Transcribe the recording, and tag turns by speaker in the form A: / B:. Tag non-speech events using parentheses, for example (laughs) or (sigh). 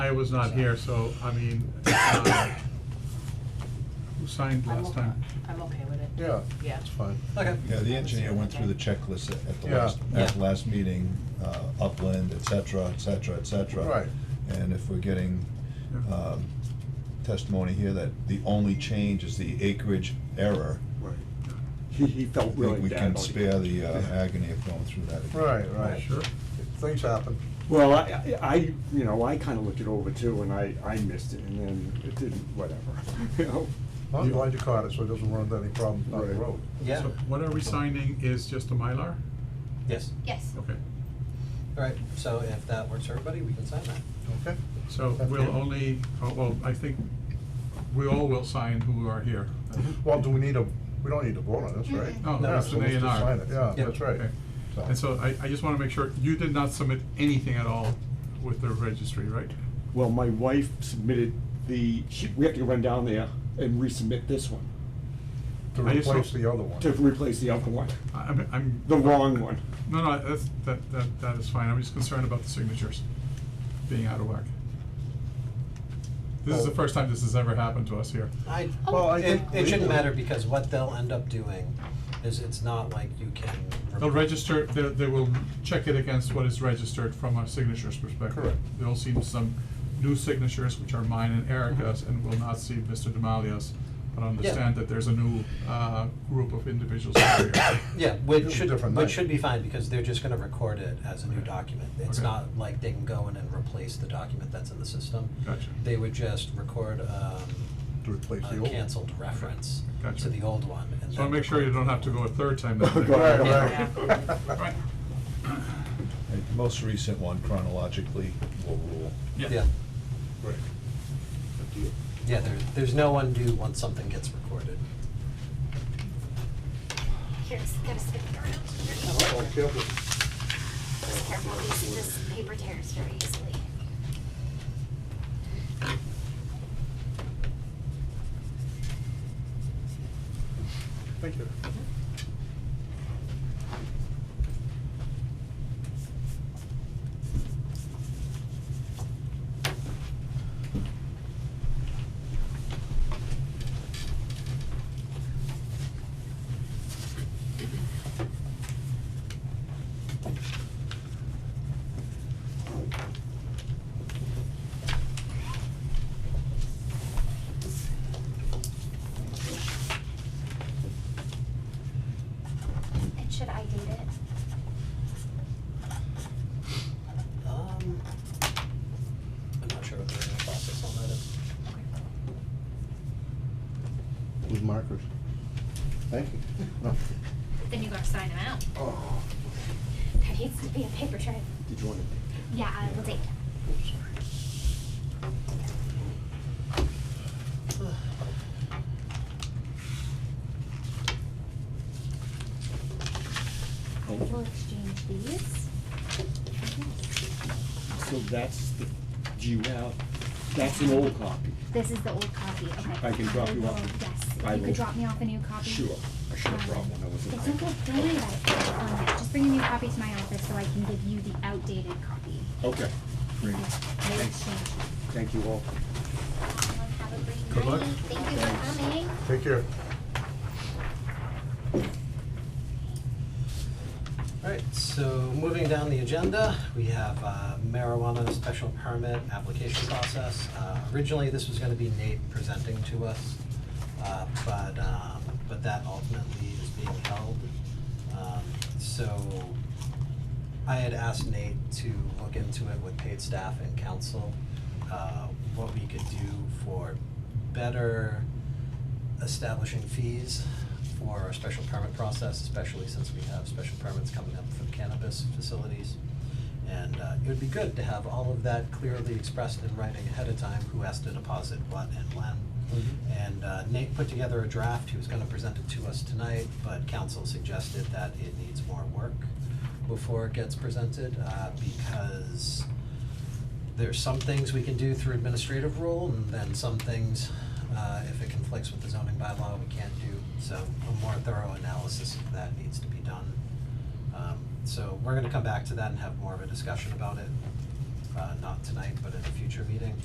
A: Maya was not here, so, I mean, uh, who signed
B: I'm
A: last
B: okay-
A: time?
B: I'm okay with it.
C: Yeah.
B: Yeah.
C: It's fine.
D: Okay.
E: Yeah, the engineer went through the checklist at at the
C: Yeah.
E: last, at the last meeting, uh, upland, et cetera, et cetera, et cetera.
C: Right.
E: And if we're getting
A: Yeah.
E: um, testimony here that the only change is the acreage error,
C: Right.
F: He, he
E: I
F: felt
E: think
F: really
E: we
F: bad
E: can
F: about it.
E: spare the uh, agony of going through that again.
C: Right, right.
A: Sure.
C: Things happen.
F: Well, I, I, you know, I kinda looked it over too, and I, I missed it, and then it didn't, whatever, (laughs) you know?
C: I'm glad you caught it, so it doesn't run into any problems down the
F: Right.
C: road.
D: Yeah,
A: So what are we signing is just a Mylar?
D: yes,
G: Yes.
A: Okay,
D: all right, so if that works for everybody, we can sign that.
C: Okay?
A: so we'll only, oh, well, I think we all will sign who are here.
C: Mm-hmm. Well, do we need a, we don't need to vote on this, right?
G: Mhm.
A: No,
C: Yeah,
A: it's an
C: so
A: A
C: let's
A: and
C: just
A: R.
C: sign it. Yeah,
D: Yeah.
C: that's right.
A: Okay. And so I, I just wanna make sure, you did not submit anything at all with the registry, right?
F: Well, my wife submitted the, she, we have to run down there and resubmit this one,
C: To
A: I just
C: replace
A: don't-
C: the other one.
F: to replace the other one,
A: I- I'm, I'm.
F: the wrong one.
A: No, no, that's, that, that, that is fine, I'm just concerned about the signatures being out of whack. This is the
C: Oh.
A: first time this has ever happened to us here.
D: I,
C: Well, I
D: it,
C: think
D: it shouldn't
C: legally-
D: matter, because what they'll end up doing is it's not like you can.
A: They'll register, they, they will check it against what is registered from a signatures perspective.
C: Correct.
A: They'll see some new signatures, which are mine and Erica's,
D: Mhm.
A: and will not see Mr. Demalia's, but
D: Yeah.
A: understand that there's a new, uh, group of individuals out
D: (coughs)
A: here.
D: Yeah,
C: It'll
D: which
C: be
D: should,
C: different
D: which
C: night.
D: should be fine, because they're just gonna record it as a new
A: Okay.
D: document. It's
A: Okay.
D: not like they can go in and replace the document that's in the system.
A: Gotcha.
D: They would just record, um,
C: To replace the
D: a
C: old. one.
D: canceled reference
A: Gotcha.
D: to the old one, and then.
A: So I'll make sure you
D: record
A: don't have to
D: the new
A: go a
D: one.
A: third time
C: (laughs)
A: that
F: Right,
A: day.
C: Right,
A: (laughs) Right.
C: right.
E: Right, The most recent one chronologically will rule.
D: Yeah,
C: Right. Good deal.
D: yeah, there, there's no undo once something gets recorded.
G: Here, it's gotta stick it around.
C: Oh, careful.
G: Just careful, these, this paper tears very easily.
C: Thank you.
G: And should I date it?
D: Um, I'm not sure what the original process on that is.
C: With markers. Thank you. No.
G: Then you gotta sign them out.
C: Oh,
G: There needs to be a paper trail.
C: did you want to?
G: Yeah, I will date it.
F: Oh.
G: I will exchange these.
F: So that's the, do you have, that's an old copy.
G: This is the old copy, okay.
F: I can drop you off
G: will-
F: a- I
G: Yes, you
F: will-
G: could drop me off a new copy.
F: Sure, I should have brought one, I
G: It's
F: wasn't.
G: okay, don't worry about it. Um, yeah, just bring a new copy to my office so I can give you the outdated copy.
F: Okay,
G: Yeah,
F: great,
G: they exchange.
F: thank you all.
G: Everyone have a great
A: Good luck.
G: night. Thank you for coming.
C: Take care.
D: Alright, so moving down the agenda, we have uh, marijuana special permit application process. Uh, Originally, this was gonna be Nate presenting to us, uh, but, um, but that ultimately is being held. Um, So I had asked Nate to look into it with paid staff and council, uh, what we could do for better establishing fees for our special permit process, especially since we have special permits coming up for cannabis facilities. And uh, it would be good to have all of that clearly expressed in writing ahead of time, who has to deposit what and when. And uh, Nate put together a draft, he was gonna present it to us tonight, but council suggested that it needs more work before it gets presented, uh, because there's some things we can do through administrative rule, and then some things, uh, if it conflicts with the zoning bylaw, we can't do. So a more thorough analysis of that needs to be done. Um, so we're gonna come back to that and have more of a discussion about it, uh, not tonight, but in a future meeting.